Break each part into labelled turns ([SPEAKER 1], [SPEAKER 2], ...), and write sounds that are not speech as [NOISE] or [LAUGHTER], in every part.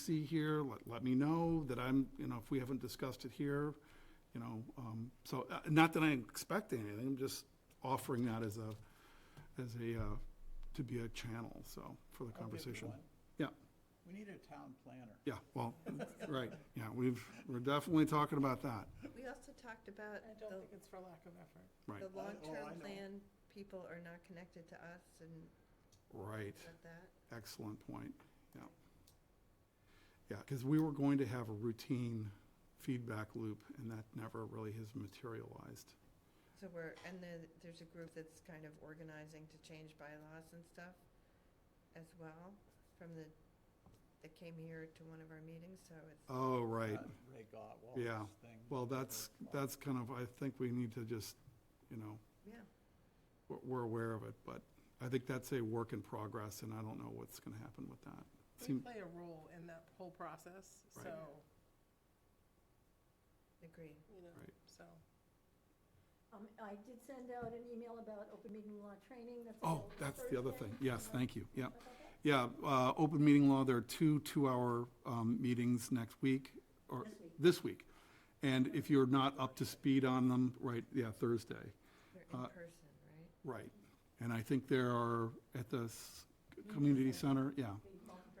[SPEAKER 1] see here, let, let me know that I'm, you know, if we haven't discussed it here, you know, um, so, uh, not that I expect anything, I'm just offering that as a, as a, uh, to be a channel, so, for the
[SPEAKER 2] I'll give you
[SPEAKER 1] conversation.
[SPEAKER 2] one.
[SPEAKER 1] Yeah,
[SPEAKER 2] We need a town planner.
[SPEAKER 1] yeah, well, right, yeah, we've, we're definitely talking about that,
[SPEAKER 3] We also talked about
[SPEAKER 4] I don't
[SPEAKER 3] the,
[SPEAKER 4] think it's for lack of effort.
[SPEAKER 1] right,
[SPEAKER 3] the
[SPEAKER 2] oh, I
[SPEAKER 3] long-term
[SPEAKER 2] know.
[SPEAKER 3] plan, people are not connected to us and
[SPEAKER 1] right.
[SPEAKER 3] about that.
[SPEAKER 1] Excellent point, yeah. Yeah, because we were going to have a routine feedback loop, and that never really has materialized.
[SPEAKER 3] So we're, and then there's a group that's kind of organizing to change bylaws and stuff as well, from the, that came here to one of our meetings, so it's,
[SPEAKER 1] Oh, right.
[SPEAKER 2] Uh, Ray Gottwal's
[SPEAKER 1] Yeah.
[SPEAKER 2] thing.
[SPEAKER 1] Well, that's, that's kind of, I think we need to just, you know,
[SPEAKER 3] yeah.
[SPEAKER 1] we're, we're aware of it, but I think that's a work in progress, and I don't know what's going to happen with that.
[SPEAKER 4] We
[SPEAKER 1] Seem-
[SPEAKER 4] play a role in that whole process,
[SPEAKER 1] Right.
[SPEAKER 4] so,
[SPEAKER 3] Agree.
[SPEAKER 4] you know,
[SPEAKER 1] Right.
[SPEAKER 4] so.
[SPEAKER 5] Um, I did send out an email about open meeting law training, that's.
[SPEAKER 1] Oh,
[SPEAKER 5] available
[SPEAKER 1] that's the other
[SPEAKER 5] Thursday.
[SPEAKER 1] thing. Yes,
[SPEAKER 5] Um,
[SPEAKER 1] thank you, yeah.
[SPEAKER 5] about that?
[SPEAKER 1] Yeah, uh, open meeting law, there are two two-hour um, meetings next week, or
[SPEAKER 5] This week.
[SPEAKER 1] this week. And if you're not up to speed on them, right, yeah, Thursday,
[SPEAKER 3] They're in
[SPEAKER 1] Uh,
[SPEAKER 3] person, right?
[SPEAKER 1] right. And I think there are at the s- community center, yeah,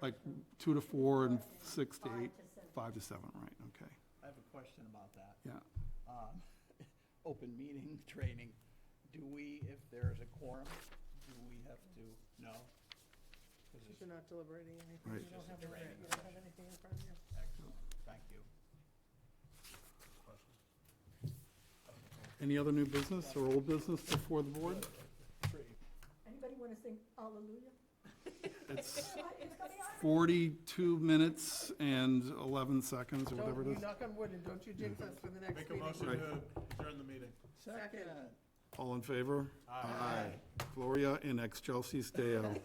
[SPEAKER 1] like two to four and six to eight,
[SPEAKER 5] Five to seven.
[SPEAKER 1] five to seven, right, okay,
[SPEAKER 2] I have a question about that.
[SPEAKER 1] yeah.
[SPEAKER 2] Um, [LAUGHS] Open meeting [LAUGHS] training, do we, if there is a quorum, do we have to, no? 'Cause
[SPEAKER 4] Because
[SPEAKER 2] it's-
[SPEAKER 4] you're not deliberating anything,
[SPEAKER 1] Right.
[SPEAKER 4] you don't
[SPEAKER 2] Just
[SPEAKER 4] have,
[SPEAKER 2] a
[SPEAKER 4] a-
[SPEAKER 2] training
[SPEAKER 4] you don't have anything in front of you.
[SPEAKER 2] Excellent, thank you.
[SPEAKER 1] Any other new business or old business before the board?
[SPEAKER 2] Three.
[SPEAKER 5] Anybody want to sing hallelujah?
[SPEAKER 1] It's
[SPEAKER 5] It's gonna be on.
[SPEAKER 1] forty-two minutes and eleven seconds, or whatever
[SPEAKER 4] Don't,
[SPEAKER 1] it
[SPEAKER 4] you
[SPEAKER 1] is.
[SPEAKER 4] knock on wood and don't you jinx us for the next
[SPEAKER 6] Make a
[SPEAKER 4] meeting.
[SPEAKER 6] motion
[SPEAKER 1] Right.
[SPEAKER 6] to adjourn the meeting.
[SPEAKER 4] Second.
[SPEAKER 1] All in favor?
[SPEAKER 6] Aye.
[SPEAKER 1] Gloria in excelsis Deo.